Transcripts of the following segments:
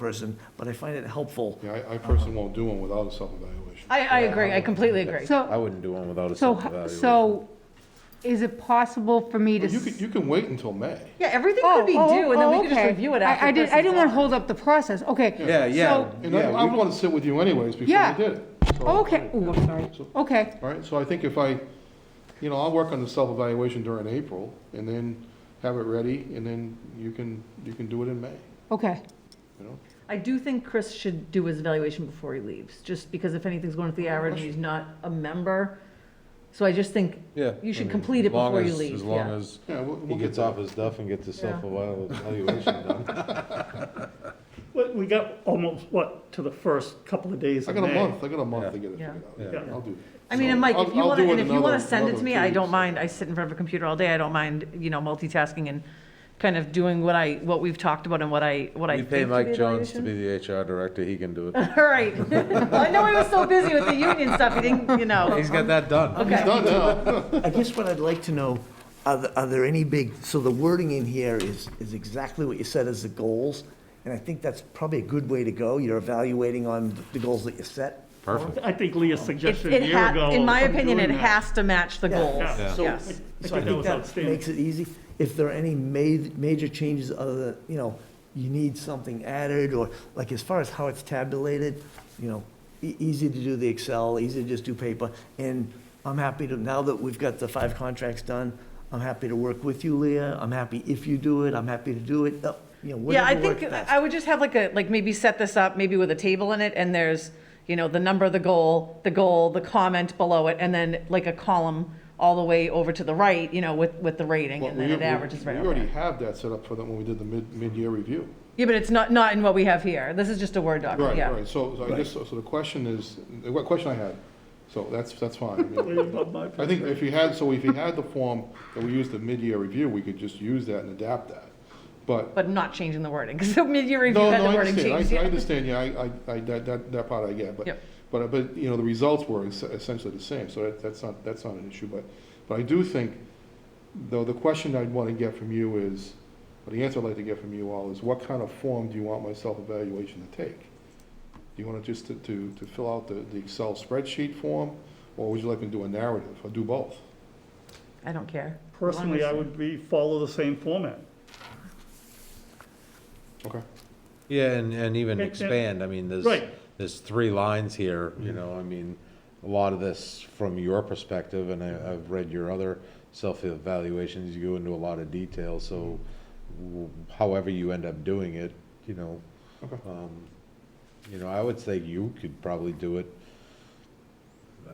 person, but I find it helpful. Yeah, I, I personally won't do one without a self-evaluation. I, I agree, I completely agree. So, I wouldn't do one without a so, self-evaluation. so is it possible for me to? But You can, s- you can wait until May. Yeah, everything Oh, could be oh, due, and then oh, we could just okay. review it I- after. I didn't, I Christmas. didn't want to hold up the process, okay. Yeah, yeah, so- And I, yeah, I we- want to sit with you anyways before Yeah. we did it. So- Okay, oh, I'm sorry, So- okay. All right, so I think if I, you know, I'll work on the self-evaluation during April, and then have it ready, and then you can, you can do it in May, Okay, you know? I do think Chris should do his evaluation before he leaves, just because if anything's going to the average, he's not a member. So I just think yeah. you should I mean, complete it as long before you as- leave, As long yeah. as Yeah, we'll, he we'll get gets to off his duff and gets his Yeah. self-evaluation done. Well, we got almost, what, to the first couple of days I of got a May? month, I got a month to get it Yeah. figured out. Yeah. I'll do that. I mean, and Mike, I'll- if you I'll want do to, it and if you another- want to send it to another me, two I don't weeks. mind. I sit in front of a computer all day. I don't mind, you know, multitasking and kind of doing what I, what we've talked about and what I, what I We think pay to the Mike Jones to evaluation. be the HR director, he can do it. All right. I know he was so busy with the union stuff, he didn't, you know. He's got that done. Okay. Done now. I guess what I'd like to know, are, the- are there any big, so the wording in here is, is exactly what you said as the goals, and I think that's probably a good way to go. You're evaluating on the goals that you set. Perfect. I think Leah's It- suggestion a it year ha- ago. In my of opinion, it doing that- has to match the Yeah. goals, Yeah. So- yes. So I I think that think was that outstanding. makes it easy. If there are any ma- major changes other than, you know, you need something added, or like as far as how it's tabulated, you know, e- easy to do the Excel, easy to just do paper. And I'm happy to, now that we've got the five contracts done, I'm happy to work with you, Leah. I'm happy if you do it, I'm happy to do it, uh, you know, Yeah, I whatever works think best. I would just have like a, like maybe set this up, maybe with a table in it, and there's, you know, the number, the goal, the goal, the comment below it, and then like a column all the way over to the right, you know, with, with the rating, Well, and then we- it we- averages right We over. already there. have that set up for them when we did the mid, mid-year review. Yeah, but it's not, not in what we have here. This is just a Word document, Right, yeah. right, so, so I guess, so so the question is, the what question I had, so that's, that's fine. I mean, Above my I think if you had, so if you had the form that we used at mid-year review, we could just use that and adapt that. But, But not changing the wording, because mid-year review no, had no, the I wording understand, changed, I- I yeah. understand, yeah, I, I, I- that, that, that part I get, but, Yep. but, but, you know, the results were es- essentially the same, so that, that's not, that's not an issue, but, but I do think, though, the question I'd want to get from you is, or the answer I'd like to get from you all is, what kind of form do you want my self-evaluation to take? Do you want it just to, to, to fill out the, the Excel spreadsheet form, or would you like me to do a narrative, or do both? I don't care. Personally, I would be, follow the same format. Okay. Yeah, and, and even Yeah, yeah. expand, I mean, there's, Right. there's three lines here, you know, I mean, a lot of this from your perspective, and I, I've read your other self-evaluations, you go into a lot of detail, so w- however you end up doing it, you know, Okay. um, you know, I would say you could probably do it, uh,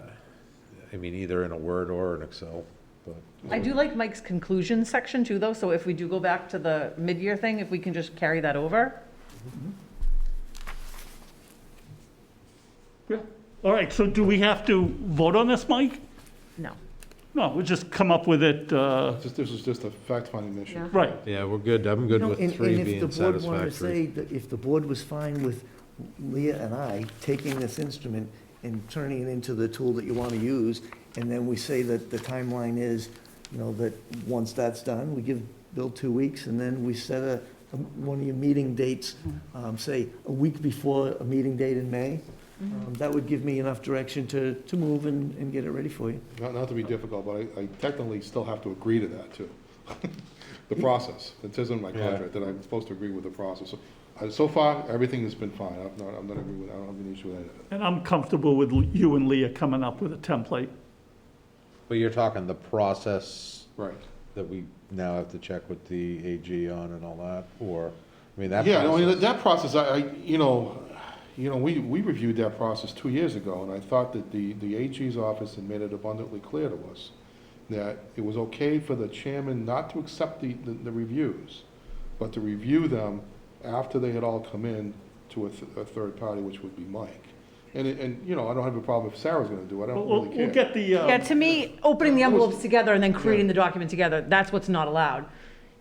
I mean, either in a Word or an Excel, but. I do like Mike's conclusion section too, though, so if we do go back to the mid-year thing, if we can just carry that over. Yeah. All right, so do we have to vote on this, Mike? No. No, we'll just come up with it, uh, Just, this is just a fact-finding mission. Yeah. right. Yeah, we're good, I'm You good know, with and- three And being if the board wanted to say, satisfactory. that if the board was fine with Leah and I taking this instrument and turning it into the tool that you want to use, and then we say that the timeline is, you know, that once that's done, we give Bill two weeks, and then we set a, a- one of your meeting dates, um, say, a week before a meeting date in May, um, that would give me enough direction to, to move and, and get it ready for you. Not, not to be difficult, but I, I technically still have to agree to that, too. The process, it says in my Yeah. contract that I'm supposed to agree with the process. So, uh, So far, everything has been fine, I'm not, I'm not agree with, I don't have an issue with any of it. And I'm comfortable with you and Leah coming up with a template. But you're talking the process Right. that we now have to check with the AG on and all that, or, I mean, that. Yeah, I mean, process- that- that process, I, I, you know, you know, we, we reviewed that process two years ago, and I thought that the, the AG's office had made it abundantly clear to us that it was okay for the chairman not to accept the, the the reviews, but to review them after they had all come in to a, th- a third party, which would be Mike. And, it- and, you know, I don't have a problem if Sarah's gonna do it, I We'll, don't we'll- really care. we'll get the, Yeah, uh, to me, opening the envelopes together and then creating the document together, that's what's not allowed.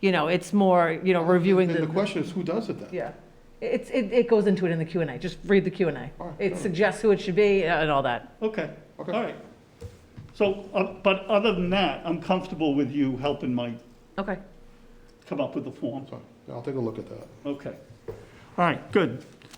You know, it's more, you know, reviewing And the the, question is, who does it then? yeah. It's, it, it goes into it in the Q and A, just read the Q and A. All right, It all right. suggests who it should be uh, and all that. okay, all Okay. right. So, uh, but other than that, I'm comfortable with you helping Mike Okay. come up with the form. So, I'll take a look at that. Okay. All right, good.